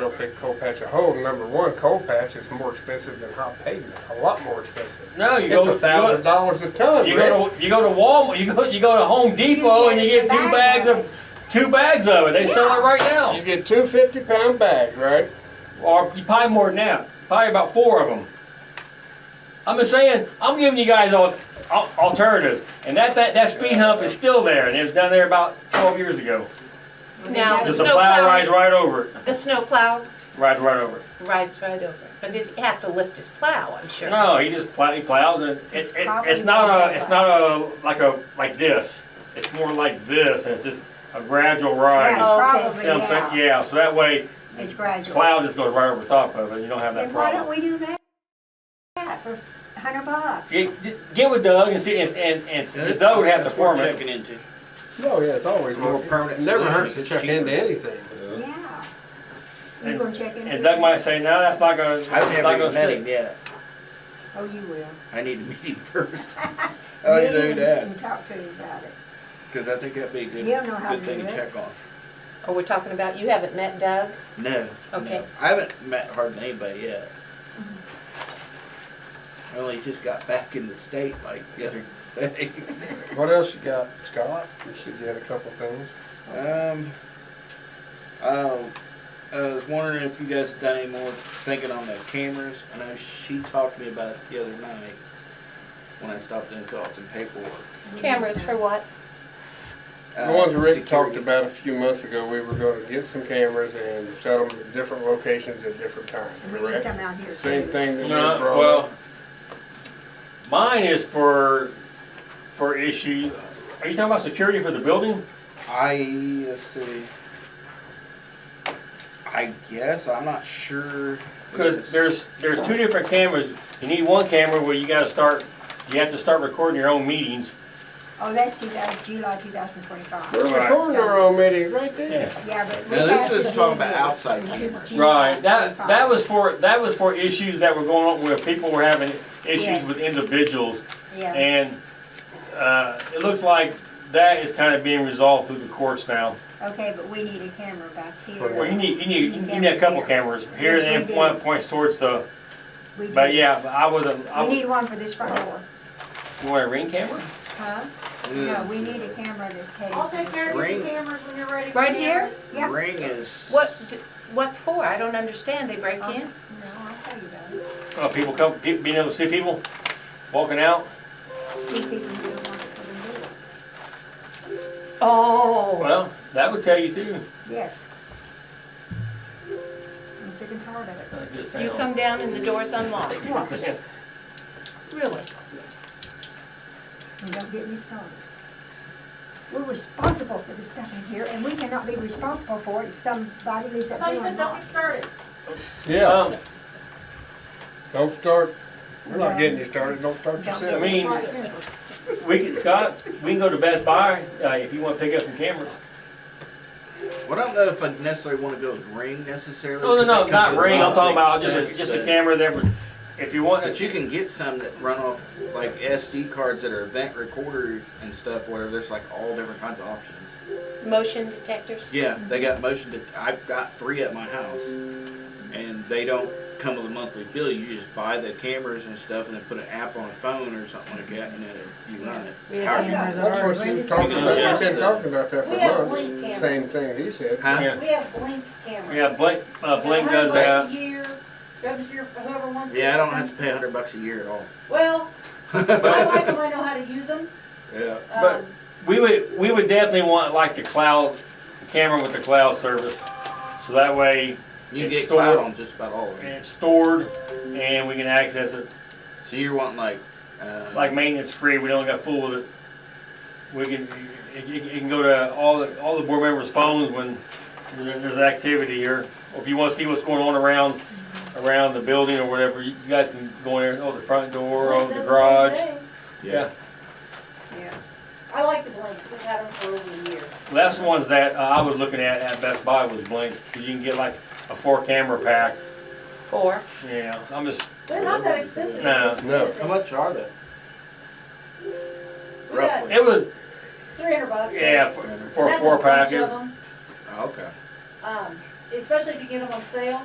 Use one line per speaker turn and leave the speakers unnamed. don't think coal patch a hole. Number one, coal patch is more expensive than hot pavement, a lot more expensive.
No, you
It's
go
a thousand
to,
dollars a ton,
you
Rick.
go to, you go to Walmart, you go, you go to Home Depot and you get two bags of, two bags of it. They sell it right
You
now.
get two fifty pound bags, right?
Or probably more than that, probably about four of them. I'm just saying, I'm giving you guys all, al- alternatives. And that, that, that speed hump is still there and it's down there about twelve years ago.
Now,
Just a plow rides
snowplow,
right over it,
the snowplow
rides right over it.
rides right over. But does he have to lift his plow, I'm sure?
No, he just plow, he plows and it,
It's
it, it's
probably
not a,
goes
it's
up.
not a, like a, like this. It's more like this and it's just a gradual
Yeah,
rise. You
it's
Oh,
know what I'm
probably,
saying?
yeah,
Yeah, so that way
it's gradual.
cloud just goes right over top of it, you don't have that
Then why don't
problem.
we do that? Yeah, for a hundred bucks.
Get, get- get with Doug and see, and, and, and Doug would have to
That's what
form
we're
it.
Checking into.
Oh, yeah, it's always
More permanent
Never hurts
solution,
to
it's
check
cheaper.
into anything.
Yeah. You
And-
gonna check into
And Doug
it?
might say, no, that's not gonna, it's
I've
not
never
gonna
met him
stick.
yet.
Oh, you will.
I need to meet him first. I need
Maybe
to
we can
ask,
Talk to you about it.
because I think that'd be a good,
You don't know how
good
to
thing
do
to
it.
check on.
Oh, we're talking about, you haven't met Doug?
Mm-hmm.
No,
Okay.
no. I haven't met hardly anybody yet.
Mm-hmm.
I only just got back in the state like the other day.
What else you got, Scott? You should get a couple things.
Um, oh, I was wondering if you guys had done any more thinking on the cameras. I know she talked to me about it the other night when I stopped in and filled out some paperwork.
Cameras for what?
The ones
Uh,
Rick
security.
talked about a few months ago, we were gonna get some cameras and set them at different locations at different times,
And we need
correct?
some out here.
Same
too.
thing that we
No,
brought
well,
up.
mine is for, for issue, are you talking about security for the building?
I let's see. I guess I'm not sure.
Because there's, there's two different cameras. You need one camera where you gotta start, you have to start recording your own meetings.
Oh, that's two thousand, July two thousand twenty-five.
We're recording our own meeting right there.
Yeah, but. we
Now, this
have to
is
do
talking about
this
outside
in
cameras.
July
Right, that,
25.
that was for, that was for issues that were going on where people were having issues
Yes.
with individuals.
Yeah,
And, uh, it looks like that is kinda being resolved through the courts now.
okay, but we need a camera back
Well, you
here.
need, you need, you need a couple cameras here
Yes,
and then
we do.
one points towards the,
We
but
do.
yeah, but I wasn't, I
We
was,
need one for this front door,
you want a ring camera?
huh? No,
Yeah.
we need a camera that's headed.
I'll
for
take
this
care of
Ring.
the cameras when you're ready. for
Right here?
cameras.
Yeah.
Ring is.
What, d- what for? I don't understand. They
Uh-huh.
break in?
Um, No, I'll tell you about it.
Uh, people come, pe- being able to see people walking out.
See if people do want to put them in.
Oh,
Well, that would tell you too.
Yes. I'm sick and tired of it.
Uh, just
you
saying.
come down and the door's unlocked.
Yes.
Really?
And don't get me started. We're responsible for the stuff in here, and we cannot be responsible for it if somebody leaves
I
that
thought you
door
said don't get
unlocked.
started.
Yeah,
Um,
don't start, we're not
No.
getting you started, don't start
Don't
I
get
yourself.
mean-
started.
we can, Scott, we can go to Best Buy, uh, if you wanna pick up some cameras.
Well, I don't know if I necessarily want to go with ring necessarily.
Oh, No, no,
'cause
no,
that comes
not
at
ring,
a
I'm talking about
lot of
just a,
expense,
just a
but-
camera there, for- if you want,
But you can get some that run off like SD cards that are event recorder and stuff. Whatever. There's like all different kinds of options.
Motion detectors?
Yeah, they got motion. Det- I've got three at my house, and they don't come with a monthly bill. You just buy the cameras and stuff, and then put an app on a phone or something like that, and then you run
We
it.
have
How are you-
cameras.
That's what you were talking about, we've been talking about that for
We have
months,
blink cameras.
same thing he said.
Huh?
Yeah.
We have blink cameras.
yeah, Blink, uh, Blink does
A hundred bucks
that.
a year, goes to your, whoever wants.
Yeah, I don't
it.
have to pay a hundred bucks a year at all.
Well, I like them, I know how to use um, them.
yeah.
But- We would, we would definitely want like the cloud, the camera with the cloud service, so that way
You can
It's
get
stored.
cloud on just about all of them.
it's stored and we can access it,
So you're wanting like, uh,
like maintenance free, we don't got fool with it. We can, it, it it can go to all, the all the board members' phones when there- there's activity or, or if you wanna see what's going on around, around the building or whatever, you you guys can go in there, oh, the front door,
Blink
oh,
does
the
same
garage.
thing.
Yeah,
Yeah. I like the blinks, we've had them for over a year.
Well, that's the ones that uh, I was looking at at Best Buy was Blink, 'cause you can get like a four camera pack,
Four?
yeah, I'm just,
They're not that expensive.
No.
No.
How much are they?
We got
Roughly.
it was,
Three hundred bucks.
yeah, for for a four pack.
package.
Oh, okay.
Um, especially if you get them on sale.